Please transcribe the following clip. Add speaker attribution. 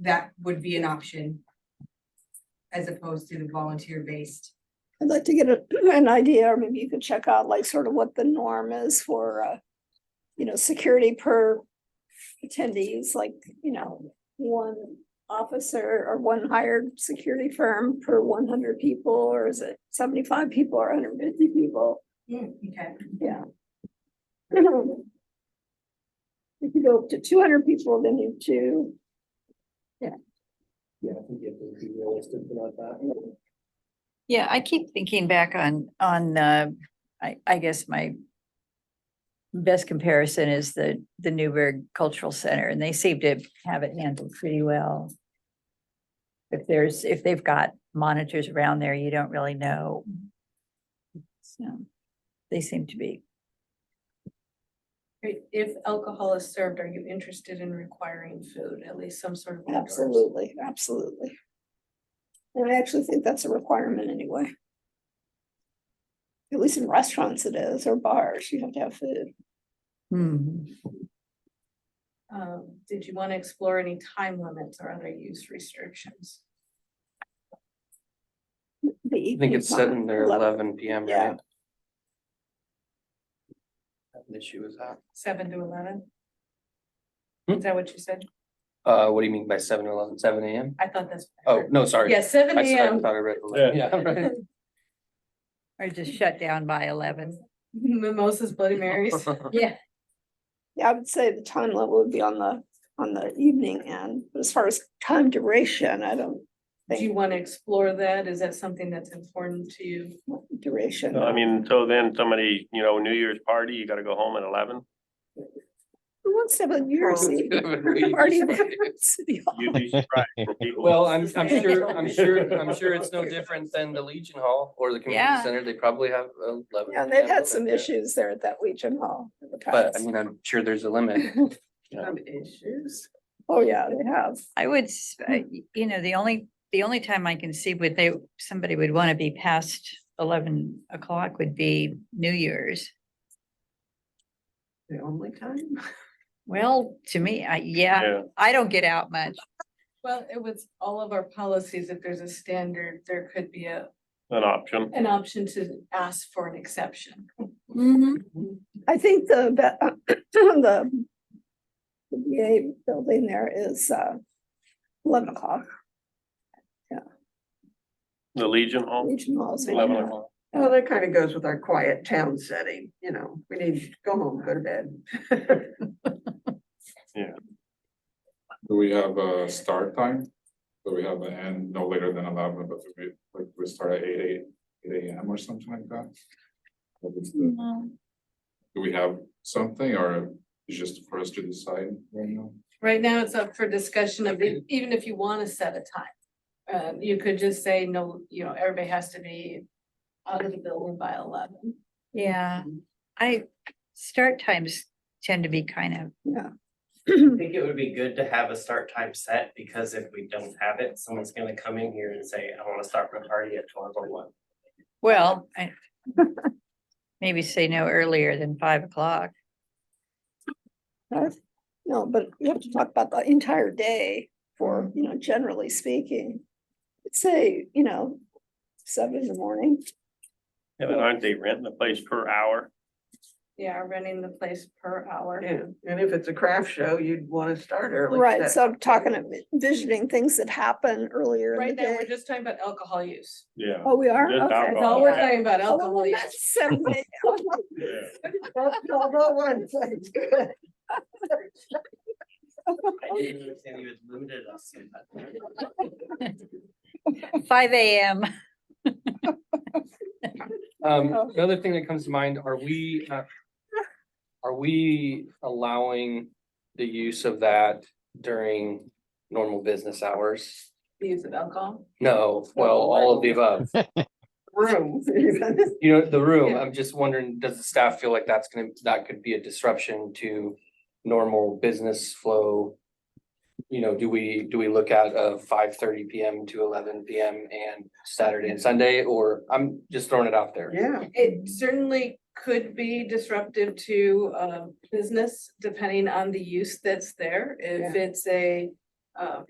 Speaker 1: that would be an option. As opposed to the volunteer based.
Speaker 2: I'd like to get a- an idea, or maybe you could check out like sort of what the norm is for, uh, you know, security per attendees, like, you know, one officer or one hired security firm per one hundred people, or is it seventy-five people or hundred fifty people?
Speaker 1: Okay.
Speaker 2: Yeah. If you go up to two hundred people, then you two.
Speaker 3: Yeah, I think you have to be realistic about that.
Speaker 4: Yeah, I keep thinking back on, on, uh, I, I guess my best comparison is the, the Newburgh Cultural Center, and they seem to have it handled pretty well. If there's, if they've got monitors around there, you don't really know. So, they seem to be,
Speaker 5: Right, If alcohol is served, are you interested in requiring food, at least some sort of? outdoors?
Speaker 2: Absolutely, absolutely. And I actually think that's a requirement anyway. At least in restaurants it is, or bars, you have to have food.
Speaker 4: hmm,
Speaker 5: Um, did you want to explore any time limits or other use restrictions?
Speaker 2: I
Speaker 6: I think it's sitting there eleven P M,
Speaker 2: Yeah.
Speaker 6: right? Have an issue with that.
Speaker 5: Seven to eleven?
Speaker 6: Hmm?
Speaker 5: Is that what you said?
Speaker 6: Uh, what do you mean by seven to eleven, seven A M?
Speaker 5: I thought that's. what I
Speaker 6: Oh,
Speaker 5: heard.
Speaker 6: no, sorry.
Speaker 5: Yeah, seven
Speaker 6: I s- I
Speaker 5: AM,
Speaker 6: thought I read. 11. Yeah, right.
Speaker 4: or just shut down by eleven.
Speaker 5: mimosas, Bloody Marys.
Speaker 4: Yeah.
Speaker 2: Yeah, I would say the time level would be on the, on the evening end, but as far as time duration, I don't
Speaker 5: Do you
Speaker 2: think
Speaker 5: want to explore that? Is that something that's important to you?
Speaker 2: duration.
Speaker 7: I mean, so then somebody, you know, New Year's party, you gotta go home at eleven.
Speaker 2: Who wants to have a New Year's Eve party at City Hall?
Speaker 7: You'd be surprised for people.
Speaker 6: Well, I'm, I'm sure, I'm sure, I'm sure it's no different than the Legion Hall or the community
Speaker 4: Yeah.
Speaker 6: center. They probably have eleven.
Speaker 2: Yeah, they've had some issues there at that Legion Hall in the
Speaker 6: But I
Speaker 2: past.
Speaker 6: mean, I'm sure there's a limit. you know.
Speaker 5: issues.
Speaker 2: Oh, yeah, they have.
Speaker 4: I would, s- uh, y- you know, the only, the only time I can see would they, somebody would want to be past eleven o'clock would be New Year's.
Speaker 5: The only time?
Speaker 4: Well, to me, I, yeah,
Speaker 7: Yeah,
Speaker 4: I don't get out much.
Speaker 5: Well, it was all of our policies, if there's a standard, there could be a,
Speaker 7: an option.
Speaker 5: an option to ask for an exception.
Speaker 2: I think the, be- the the VA building there is uh, eleven o'clock,
Speaker 7: The Legion Hall,
Speaker 2: Legion Hall is.
Speaker 7: eleven o'clock.
Speaker 8: Well, that kind of goes with our quiet town setting, you know, we need to go home, go to bed.
Speaker 9: Do we have a start time? Do we have an end no later than eleven, but we, like, we start at eight, eight, eight AM or something like that? What is the- Do we have something or is just for us to decide right now?
Speaker 5: Right now, it's up for discussion of, the- even if you want to set a time. Um, you could just say, no, you know, everybody has to be out of the building by eleven.
Speaker 4: Yeah, I, start times tend to be kind
Speaker 2: Yeah,
Speaker 10: I think it would be good to have a start time set, because if we don't have it, someone's gonna come in here and say, I wanna start my party at twelve oh one.
Speaker 4: of, well, I maybe say no earlier than five o'clock.
Speaker 2: I've- no, but you have to talk about the entire day for, you know, generally speaking. I'd Say, you know, seven in the morning,
Speaker 7: Yeah, but aren't they renting the place per hour?
Speaker 5: Yeah, running the place per hour.
Speaker 8: Yeah, and if it's a craft show, you'd want to start early.
Speaker 2: right,
Speaker 8: set-
Speaker 2: so I'm talking, of envisioning things that happen earlier in the
Speaker 5: Right now, we're
Speaker 2: day.
Speaker 5: just talking about alcohol use.
Speaker 7: Yeah.
Speaker 2: Oh, we are?
Speaker 7: Just
Speaker 2: Okay.
Speaker 5: That's all we're
Speaker 7: Yeah.
Speaker 5: talking about,
Speaker 2: Oh, well,
Speaker 5: alcohol use.
Speaker 2: that's seven a.m.
Speaker 7: Yeah.
Speaker 8: That's all that oh one, sounds good.
Speaker 10: I didn't understand you had limited us to that.
Speaker 4: Five AM.
Speaker 6: Um,
Speaker 2: Oh.
Speaker 6: another thing that comes to mind, are we, uh, are we allowing the use of that during normal business hours?
Speaker 5: the use of alcohol.
Speaker 6: No, well, all of the above.
Speaker 8: Room.
Speaker 6: You know, the room,
Speaker 5: Yeah.
Speaker 6: I'm just wondering, does the staff feel like that's gonna, that could be a disruption to normal business flow? You know, do we, do we look at a five thirty PM to eleven PM and Saturday and Sunday, or I'm just throwing it out there?
Speaker 8: Yeah,
Speaker 5: It certainly could be disruptive to uh business depending on the use that's there. If it's a uh